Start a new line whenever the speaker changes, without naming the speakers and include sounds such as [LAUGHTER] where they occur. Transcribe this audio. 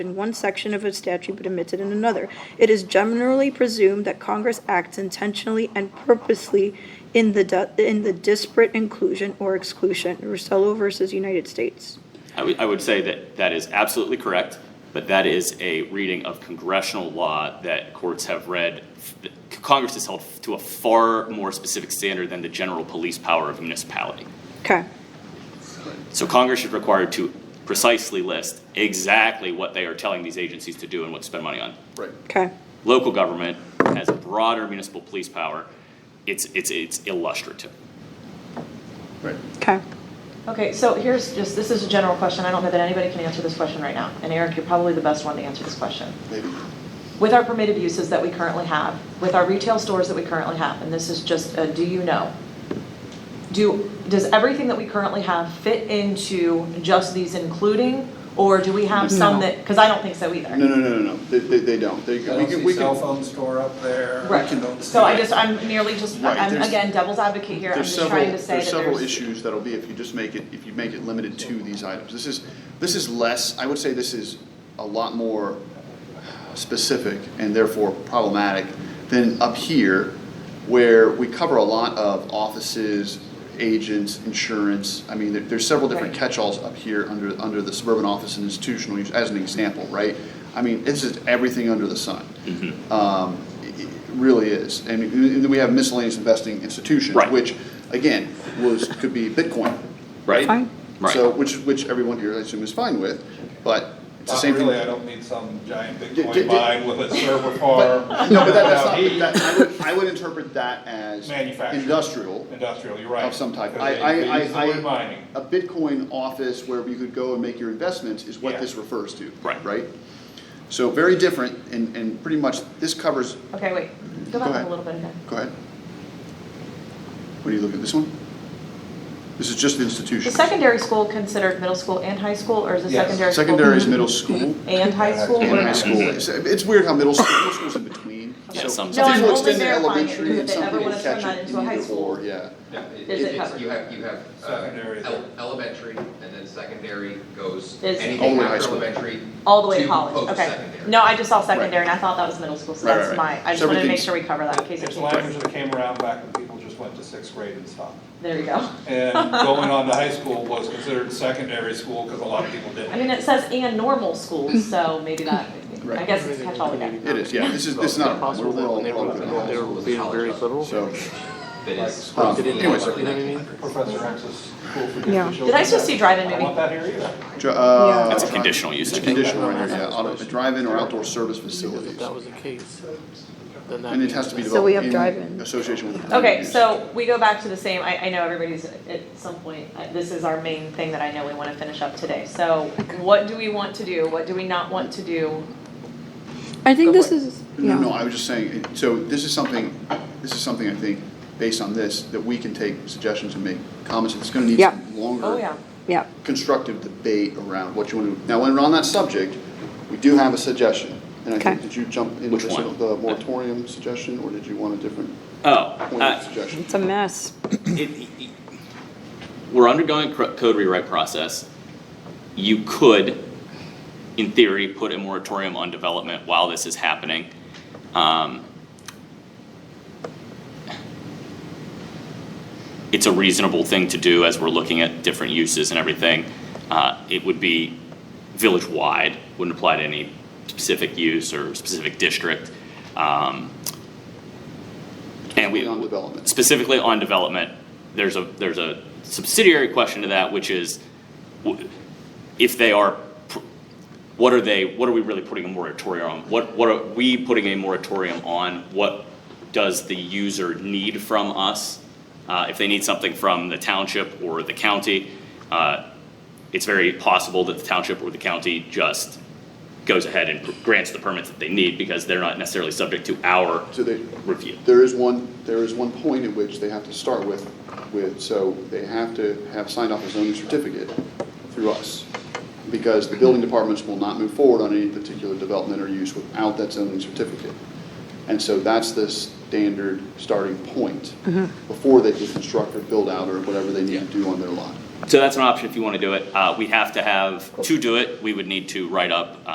in one section of a statute but omitted in another. It is generally presumed that Congress acts intentionally and purposely in the, du- in the disparate inclusion or exclusion. Rosello versus United States.
I would, I would say that that is absolutely correct, but that is a reading of congressional law that courts have read. Congress is held to a far more specific standard than the general police power of a municipality.
Okay,
So Congress is required to precisely list exactly what they are telling these agencies to do and what to spend money on.
Right.
okay,
Local government has broader municipal police power. It's, it's, it's illustrative.
Right.
okay.
Okay, so here's just, this is a general question, I don't know that anybody can answer this question right now, and Eric, you're probably the best one to answer this question.
Maybe.
With our permitted uses that we currently have, with our retail stores that we currently have, and this is just a do you know? Do, does everything that we currently have fit into just these including, or do we have some that, because I don't think so either.
No, no, no, no, no. They, they, they don't. They, we
I don't
can, we
see
can.
cell phone store up there.
Right,
I don't
so I
see-
just, I'm merely just,
Right,
I'm
there's-
again devil's advocate here, I'm
There's
just
several,
trying to say that
there's several issues that'll be if you just make it, if you make it limited to these items. This is, this is less, I would say this is a lot more specific and therefore problematic than up here where we cover a lot of offices, agents, insurance. I mean, there, there's several different
Right.
catch-alls up here under, under the suburban office and institutional use as an example, right? I mean, this is everything under the sun. Um, it it really is. And and then we have miscellaneous investing institutions,
Right.
which again, was, could be Bitcoin.
Fine.
Right.
So, which, which everyone here, I assume, is fine with, but it's the
Not
same thing.
really, I don't need some giant
d- d-
Bitcoin mine with a
[LAUGHS]
server farm.
No, but that, that's
without
not,
heat.
that, I would, I would interpret that as
Manufacturing.
industrial
Industrial, you're right.
of some type.
Because
I, I,
they- they
I,
use the
I-
word mining.
a Bitcoin office where you could go and make your investments is what
Yeah.
this refers to,
Right.
right? So very different and, and pretty much, this covers,
Okay, wait, go
Go
back
ahead.
a little bit again.
go ahead. What do you look at, this one? This is just
Is
institutions.
secondary school considered middle school and high school, or is it
Yes.
secondary school? Mm-hmm.
Secondary is middle school.
And high school?
and
What
high
about-
school. It's, it's weird how middle school, middle school's in between.
Yeah,
So
some-
No, I'm
people
only
extend their
verifying it
elementary
because
and
if
some
they ever
people
wanna turn
catch
that
it
into a high
either
school.
or, yeah.
No, it-
Is it
it's-
covered?
You have, you have uh,
Secondary is-
ele- elementary, and then secondary goes,
Is-
All
anything
the way high
after
school.
elementary.
All the way to
to
college, okay.
post-secondary.
No, I just saw
Right.
secondary and I thought that was middle school, so
Right,
that's
right,
my,
right.
I just wanted to make
Everything's-
sure we cover that in case it
It's
changes.
language that came around back when people just went to sixth grade and stopped.
There you go. [LAUGHS]
And going on to high school was considered secondary school because a lot of people
I mean,
didn't.
it says and normal
[LAUGHS]
schools, so maybe that, I
Right.
guess it's catch all again.
It is, yeah, this is, this is not, a problem. we're, we're all, we're all good on
they
that.
were being very literal.
So,
That is.
Like, Um, anyways.
Early 1900s.
Professor X's school for
Yeah.
different children.
Did I still see drive-in
I
movie?
don't want that here either.
dr- uh.
That's a
drive-
conditional use,
It's
I
a
think.
conditional right here, yeah, auto, drive-in or outdoor service facilities.
If that was the case, then that.
And it has to be
So we have
developed in
drive-in.
association with. the permitted
Okay,
use.
so we go back to the same, I, I know everybody's at some point, uh, this is our main thing that I know we wanna finish up today. So what do we want to do? What do we not want to do?
I think
Go
this
for it.
is,
No, no,
yeah,
I was just saying, it- so this is something, this is something I think, based on this, that we can take suggestions and make comments, it's gonna need
Yeah.
some longer.
Oh, yeah.
yeah,
constructive debate around what you want to, now, when we're on that subject, we do have a suggestion. And I think,
Okay.
did you jump into
Which
this,
one?
the moratorium suggestion, or did you want a different
Oh,
point
uh,
of suggestion?
it's a mess.
it- it- we're undergoing a cr- code rewrite process. You could, in theory, put a moratorium on development while this is happening. Um, It's a reasonable thing to do as we're looking at different uses and everything. Uh, It would be village-wide, wouldn't apply to any specific use or specific district. Um, And we,
On development.
specifically on development, there's a, there's a subsidiary question to that, which is, w- if they are, pr- what are they, what are we really putting a moratorium on? What, what are we putting a moratorium on? What does the user need from us? Uh, if they need something from the township or the county, uh, it's very possible that the township or the county just goes ahead and pr- grants the permits that they need because they're not necessarily subject to our
So they,
review.
there is one, there is one point at which they have to start with, with, so they have to have signed off a zoning certificate through us. Because the building departments will not move forward on any particular development or use without that zoning certificate. And so that's the standard starting point before they can construct or build out or whatever they need to do on their lot.
So that's an option if you want to do it. Uh, we have to have, to do it, we would need to write up